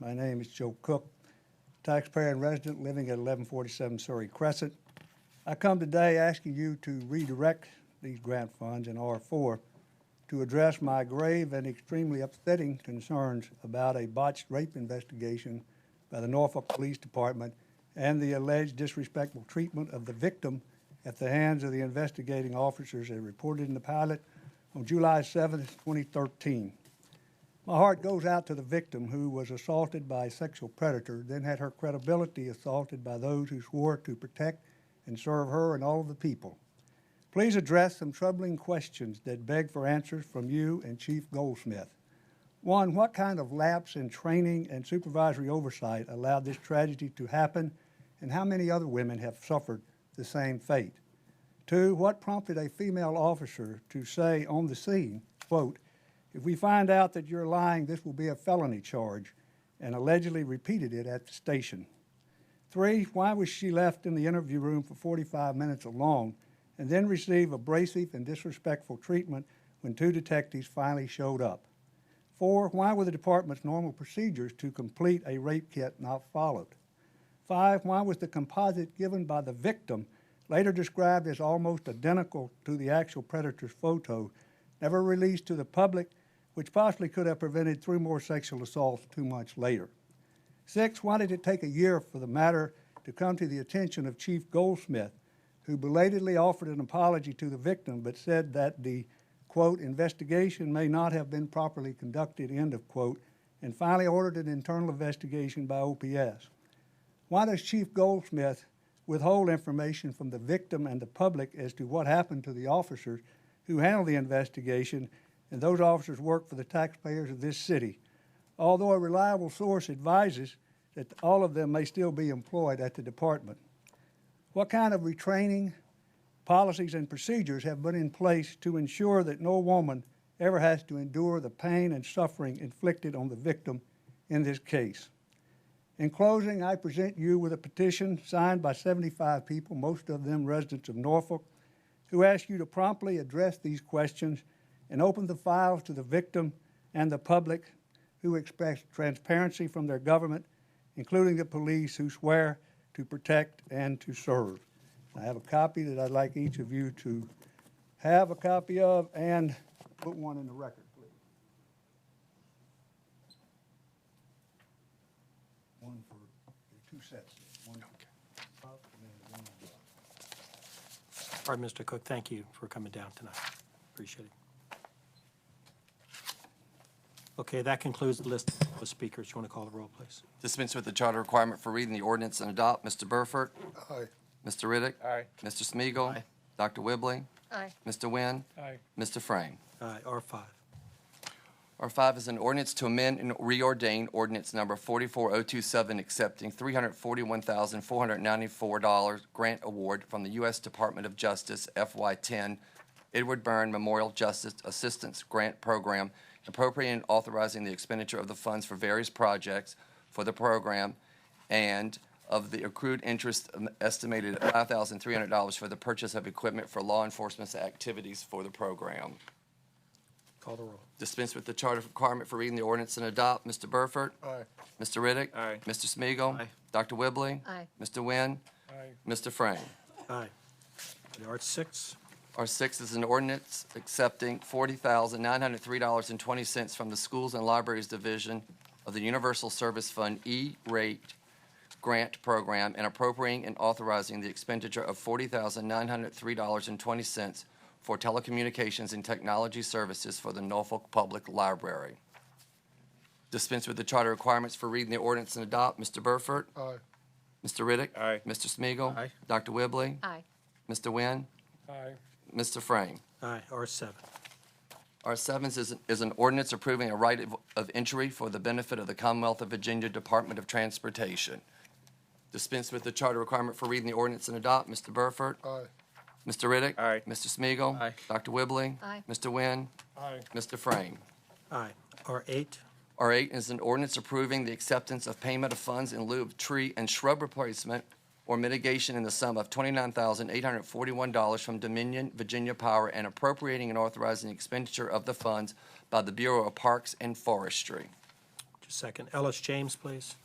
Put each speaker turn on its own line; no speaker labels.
My name is Joe Cook, taxpayer and resident living at 1147 Surrey Crescent. I come today asking you to redirect these grant funds in R4 to address my grave and extremely upsetting concerns about a botched rape investigation by the Norfolk Police Department and the alleged disrespectful treatment of the victim at the hands of the investigating officers as reported in the pilot on July 7, 2013. My heart goes out to the victim who was assaulted by a sexual predator, then had her credibility assaulted by those who swore to protect and serve her and all of the people. Please address some troubling questions that beg for answers from you and Chief Goldsmith. One, what kind of lapse in training and supervisory oversight allowed this tragedy to happen, and how many other women have suffered the same fate? Two, what prompted a female officer to say on the scene, quote, if we find out that you're lying, this will be a felony charge, and allegedly repeated it at the station. Three, why was she left in the interview room for 45 minutes alone and then receive abrasive and disrespectful treatment when two detectives finally showed up? Four, why were the department's normal procedures to complete a rape kit not followed? Five, why was the composite given by the victim, later described as almost identical to the actual predator's photo, never released to the public, which possibly could have prevented three more sexual assaults two months later? Six, why did it take a year for the matter to come to the attention of Chief Goldsmith, who belatedly offered an apology to the victim but said that the, quote, investigation may not have been properly conducted, end of quote, and finally ordered an internal investigation by OPS? Why does Chief Goldsmith withhold information from the victim and the public as to what happened to the officers who handled the investigation? And those officers work for the taxpayers of this city, although a reliable source advises that all of them may still be employed at the department. What kind of retraining policies and procedures have been in place to ensure that no woman ever has to endure the pain and suffering inflicted on the victim in this case? In closing, I present you with a petition signed by 75 people, most of them residents of Norfolk, who ask you to promptly address these questions and open the files to the victim and the public who expect transparency from their government, including the police who swear to protect and to serve. I have a copy that I'd like each of you to have a copy of and put one in the record, please. One for, there are two sets, one up and then one down.
All right, Mr. Cook, thank you for coming down tonight. Appreciate it. Okay, that concludes the list of speakers. You want to call the roll, please?
Dispense with the charter requirement for reading the ordinance and adopt. Mr. Burford?
Aye.
Mr. Riddick?
Aye.
Mr. Smiegel?
Aye.
Dr. Whibley?
Aye.
Mr. Wynn?
Aye.
Mr. Frame?
Aye, R5.
R5 is an ordinance to amend and reordain ordinance number 44027, accepting $341,494 grant award from the U.S. Department of Justice FY10 Edward Byrne Memorial Justice Assistance Grant Program, appropriating and authorizing the expenditure of the funds for various projects for the program, and of the accrued interest um, estimated at $5,300 for the purchase of equipment for law enforcement activities for the program.
Call the roll.
Dispense with the charter requirement for reading the ordinance and adopt. Mr. Burford?
Aye.
Mr. Riddick?
Aye.
Mr. Smiegel?
Aye.
Dr. Whibley?
Aye.
Mr. Wynn?
Aye.
Mr. Frame?
Aye. R6,
R six is an ordinance accepting forty thousand nine hundred three dollars and twenty cents from the Schools and Libraries Division of the Universal Service Fund E-rate grant program and appropriating and authorizing the expenditure of forty thousand nine hundred three dollars and twenty cents for telecommunications and technology services for the Norfolk Public Library. Dispense with the charter requirements for reading the ordinance and adopt. Mr. Burford?
Aye.
Mr. Riddick?
Aye.
Mr. Smiegel?
Aye.
Dr. Whibley?
Aye.
Mr. Wynn?
Aye.
Mr. Frame?
aye, R7,
R seven is, is an ordinance approving a right of, of entry for the benefit of the Commonwealth of Virginia Department of Transportation. Dispense with the charter requirement for reading the ordinance and adopt. Mr. Burford?
Aye.
Mr. Riddick?
Aye.
Mr. Smiegel?
Aye.
Dr. Whibley?
Aye.
Mr. Wynn?
Aye.
Mr. Frame?
aye, R8,
R eight is an ordinance approving the acceptance of payment of funds in lieu of tree and shrub replacement or mitigation in the sum of twenty-nine thousand eight hundred forty-one dollars from Dominion Virginia Power and appropriating and authorizing expenditure of the funds by the Bureau of Parks and Forestry.
second. Ellis James, please.